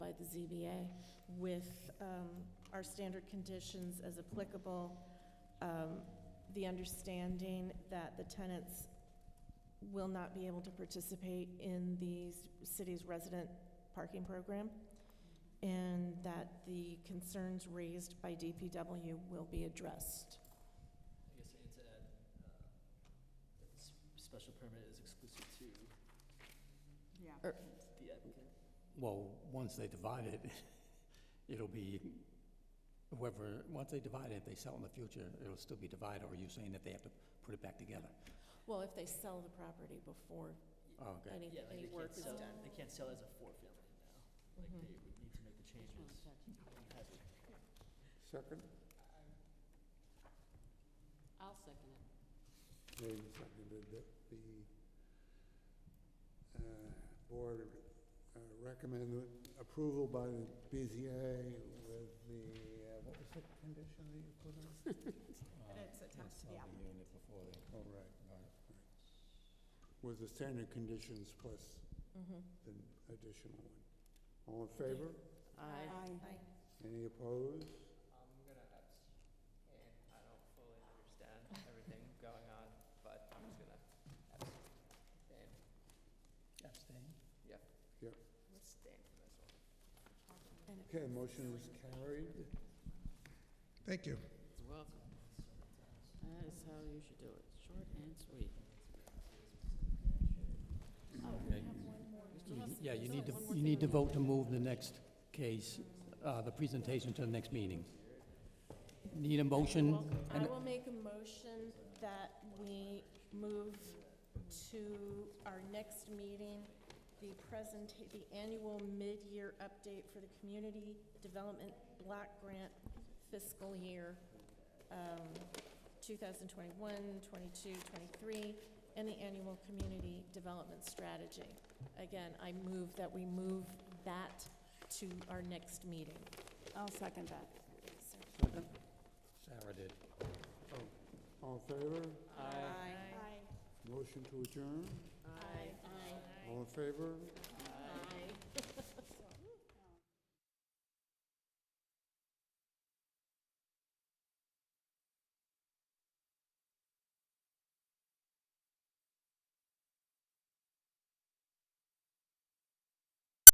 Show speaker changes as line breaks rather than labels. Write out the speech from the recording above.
ZBA with um, our standard conditions as applicable, um, the understanding that the tenants will not be able to participate in the s- city's resident parking program, and that the concerns raised by DPW will be addressed.
I guess and to add, uh, that this special permit is exclusive to
Yeah.
Or-
the applicant.
Well, once they divide it, it'll be whoever, once they divide it, if they sell in the future, it'll still be divided, or are you saying that they have to put it back together?
Well, if they sell the property before
Oh, Okay.
any,
Yeah, like
any
they
work
can't
is
sell,
done.
they can't sell as a four-family now.
Mhm.
Like, they would need to make the changes. and have it.
Second,
I'll second it.
made and seconded that the uh, board uh, recommend approval by the BZA with the, uh, what was the condition that you put on?
it's attached to the applicant.
Oh, right, right, right. With the standard conditions plus
Mhm.
Mm-hmm.
the additional one. All in favor?
Aye.
Any opposed?
I'm gonna abstain. I don't fully understand everything going on, but I'm just gonna abstain.
Abstain.
Abstain from this one.
Okay, motion is carried.
Thank you.
You're welcome. That is how you should do it, short and sweet. Oh, we have one more. We still have some-
Yeah,
we
you
still
need to,
have one more
you
thing
need to
on the
vote to move the next case, uh, the presentation to the next meeting. Need a motion?
I will make a motion that we move to our next meeting, the present, the annual mid-year update for the Community Development Block Grant fiscal year, um, 2021, 22, 23, and the annual community development strategy. Again, I move that we move that to our next meeting. I'll second that.
Sarah did.
All in favor?
Aye.
Motion to adjourn?
Aye.
All in favor?
list.